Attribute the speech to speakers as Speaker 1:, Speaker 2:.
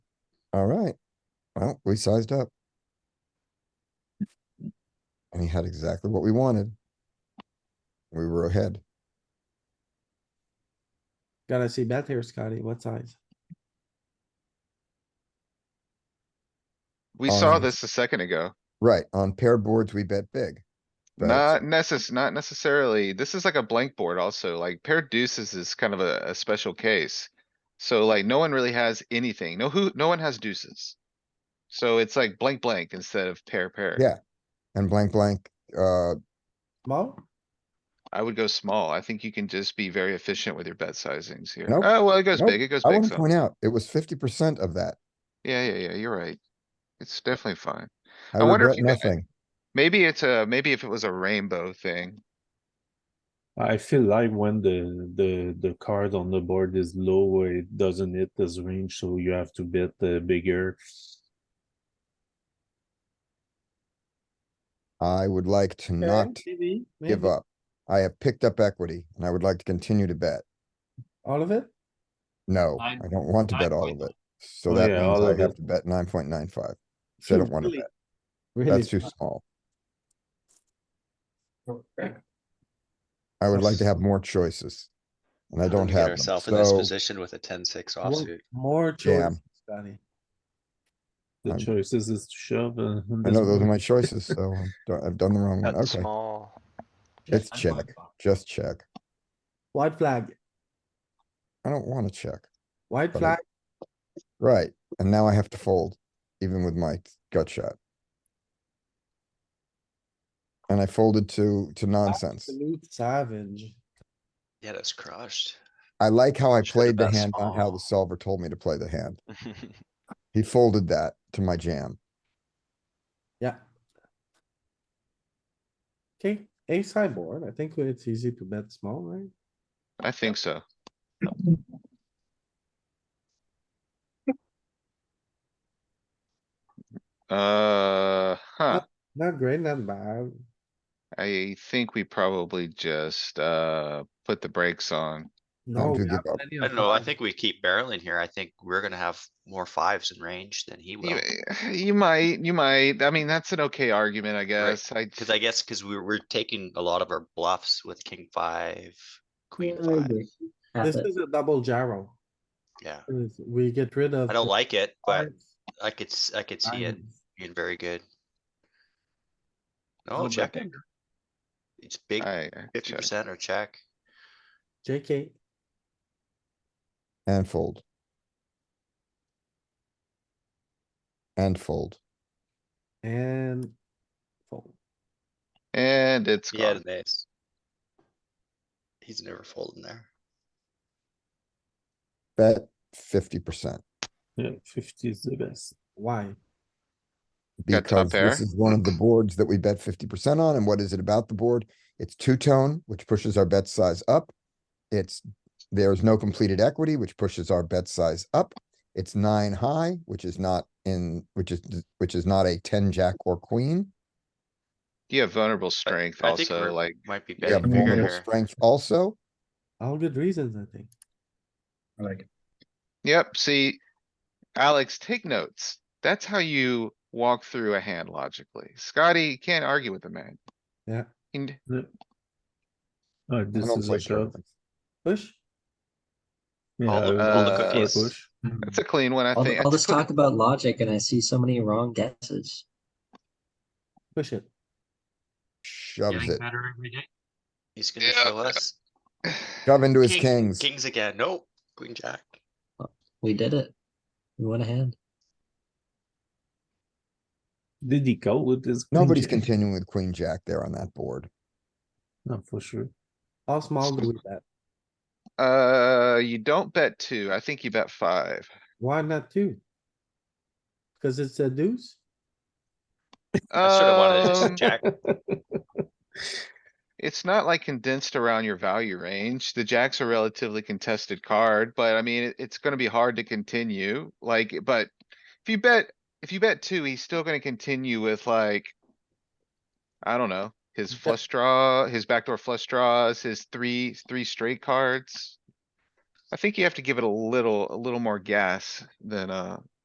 Speaker 1: Alright, well, we sized up. And he had exactly what we wanted. We were ahead.
Speaker 2: Gotta see bet here, Scotty. What size?
Speaker 3: We saw
Speaker 1: Um,
Speaker 3: this a second ago.
Speaker 1: Right, on paired boards, we bet big. but-
Speaker 3: Not necess, not necessarily. This is like a blank board also, like paired deuces is kind of a, a special case. So like, no one really has anything. No who, no one has deuces. So it's like blank, blank instead of pair, pair.
Speaker 1: Yeah. And blank, blank, uh,
Speaker 2: Small?
Speaker 3: I would go small. I think you can just be very efficient with your bet sizings here.
Speaker 1: Nope.
Speaker 3: Oh, well, it goes
Speaker 1: Nope.
Speaker 3: big, it goes
Speaker 1: I
Speaker 3: big
Speaker 1: wanna
Speaker 3: some.
Speaker 1: point out, it was fifty percent of that.
Speaker 3: Yeah, yeah, yeah, you're right. It's definitely fine.
Speaker 1: I
Speaker 3: I wonder
Speaker 1: regret
Speaker 3: if you guys-
Speaker 1: nothing.
Speaker 3: Maybe it's a, maybe if it was a rainbow thing.
Speaker 4: I feel like when the the the card on the board is low, it doesn't hit this range, so you have to bet uh, bigger.
Speaker 1: I would like to not
Speaker 2: Okay, maybe,
Speaker 1: give
Speaker 2: maybe.
Speaker 1: up. I have picked up equity and I would like to continue to bet.
Speaker 2: All of it?
Speaker 1: No, I
Speaker 5: Nine-
Speaker 1: don't want to
Speaker 5: nine
Speaker 1: bet all
Speaker 5: point
Speaker 1: of
Speaker 5: nine.
Speaker 1: it. So
Speaker 4: Oh,
Speaker 1: that
Speaker 4: yeah,
Speaker 1: means
Speaker 4: all
Speaker 1: I
Speaker 4: of
Speaker 1: have
Speaker 4: it.
Speaker 1: to bet nine point nine five. So I don't wanna
Speaker 2: Really?
Speaker 1: bet.
Speaker 2: Really?
Speaker 1: That's too small.
Speaker 2: Okay.
Speaker 1: I would like to
Speaker 2: That's-
Speaker 1: have more choices. And I
Speaker 5: Um,
Speaker 1: don't
Speaker 5: get
Speaker 1: have them,
Speaker 5: Ourself in this
Speaker 1: so-
Speaker 5: position with a ten six
Speaker 2: More-
Speaker 5: offsuit.
Speaker 2: More
Speaker 1: Jam.
Speaker 2: choice, Scotty.
Speaker 4: The
Speaker 1: I'm-
Speaker 4: choices is to shove. Uh, in
Speaker 1: I
Speaker 4: this
Speaker 1: know those are
Speaker 4: board.
Speaker 1: my choices, so I'm do- I've done the wrong one.
Speaker 6: Cut
Speaker 1: Okay,
Speaker 6: small.
Speaker 1: it's check. Just check.
Speaker 2: White flag,
Speaker 1: I don't wanna check.
Speaker 2: white
Speaker 1: But I-
Speaker 2: flag,
Speaker 1: Right, and now I have to fold, even with my gut shot. And I folded to, to nonsense.
Speaker 2: absolute savage.
Speaker 5: Yeah, that's crushed.
Speaker 1: I like how I
Speaker 5: Should've
Speaker 1: played the
Speaker 5: bet
Speaker 1: hand, not how the
Speaker 5: small.
Speaker 1: solver told me to play the hand. He folded that to my jam.
Speaker 2: Yeah. Okay, a sideboard. I think it's easy to bet small, right?
Speaker 3: I think so. Uh, huh.
Speaker 2: Not great, not bad.
Speaker 3: I think we probably just, uh, put the brakes on.
Speaker 2: No.
Speaker 1: to
Speaker 2: we
Speaker 1: give
Speaker 2: have
Speaker 1: up.
Speaker 2: plenty
Speaker 5: I
Speaker 2: of
Speaker 5: don't know, I
Speaker 2: fives.
Speaker 5: think we keep barreling here. I think we're gonna have more fives in range than he will.
Speaker 3: You, you might, you might, I mean, that's an okay argument, I guess. I,
Speaker 5: Cause I guess, cause we we're taking a lot of our bluffs with king five, queen
Speaker 2: Yeah,
Speaker 5: five.
Speaker 2: maybe. This is a double gyro.
Speaker 5: Yeah,
Speaker 2: We get rid of.
Speaker 5: I don't
Speaker 2: the
Speaker 5: like it, but
Speaker 2: fives,
Speaker 5: I could, s- I could see it
Speaker 2: diamonds.
Speaker 5: being very good.
Speaker 2: Little
Speaker 5: No,
Speaker 2: bit
Speaker 5: checking. It's big,
Speaker 3: I,
Speaker 5: fifty percent or check.
Speaker 2: JK,
Speaker 1: And fold. And fold.
Speaker 2: and fold.
Speaker 3: and it's
Speaker 5: Yeah,
Speaker 3: gone.
Speaker 5: nice. He's never folding there.
Speaker 1: Bet fifty percent.
Speaker 4: Yeah, fifty is the best.
Speaker 2: Why?
Speaker 3: Got top
Speaker 1: Because this
Speaker 3: pair.
Speaker 1: is one of the boards that we bet fifty percent on, and what is it about the board? It's two-tone, which pushes our bet size up. It's, there's no completed equity, which pushes our bet size up. It's nine high, which is not in, which is, which is not a ten jack or queen.
Speaker 3: You have vulnerable strength
Speaker 5: I think
Speaker 3: also,
Speaker 5: we're-
Speaker 3: like,
Speaker 5: Might be
Speaker 1: You
Speaker 5: better
Speaker 1: have
Speaker 5: bigger
Speaker 1: vulnerable
Speaker 5: here.
Speaker 1: strength also.
Speaker 2: All good reasons, I think.
Speaker 3: yep, see. Alex, take notes. That's how you walk through a hand logically. Scotty, you can't argue with the man.
Speaker 2: Yeah.
Speaker 3: And
Speaker 4: Uh,
Speaker 1: I
Speaker 4: this
Speaker 1: don't
Speaker 4: is
Speaker 1: play
Speaker 4: a shove.
Speaker 1: tournaments.
Speaker 2: Push,
Speaker 4: Yeah,
Speaker 5: All the- uh,
Speaker 4: I
Speaker 3: all the
Speaker 4: would go for a
Speaker 5: cookies.
Speaker 4: push.
Speaker 3: that's a clean one, I
Speaker 7: All,
Speaker 3: think.
Speaker 7: th-
Speaker 3: I
Speaker 7: all this
Speaker 3: just look-
Speaker 7: talk about logic, and I see so many wrong guesses.
Speaker 2: push it.
Speaker 1: Shoves it.
Speaker 7: better every day.
Speaker 5: He's gonna
Speaker 3: Yeah.
Speaker 5: show us.
Speaker 1: Shove into his
Speaker 5: King-
Speaker 1: kings.
Speaker 5: Kings again, nope, queen jack.
Speaker 7: We did it. We went ahead.
Speaker 4: Did he go with his? queen
Speaker 1: Nobody's
Speaker 4: jack?
Speaker 1: continuing with queen jack there on that board.
Speaker 4: No, for sure.
Speaker 2: How small do we bet?
Speaker 3: Uh, you don't bet two. I think you bet five.
Speaker 2: Why not two? Cause it's a deuce?
Speaker 5: I should have wanted to
Speaker 3: Um,
Speaker 5: just jack.
Speaker 3: It's not like condensed around your value range. The jack's a relatively contested card, but I mean, it- it's gonna be hard to continue, like, but. If you bet, if you bet two, he's still gonna continue with like. I don't know, his
Speaker 2: Yeah.
Speaker 3: flush draw, his backdoor flush draws, his three, three straight cards. I think you have to give it a little, a little more gas than, uh,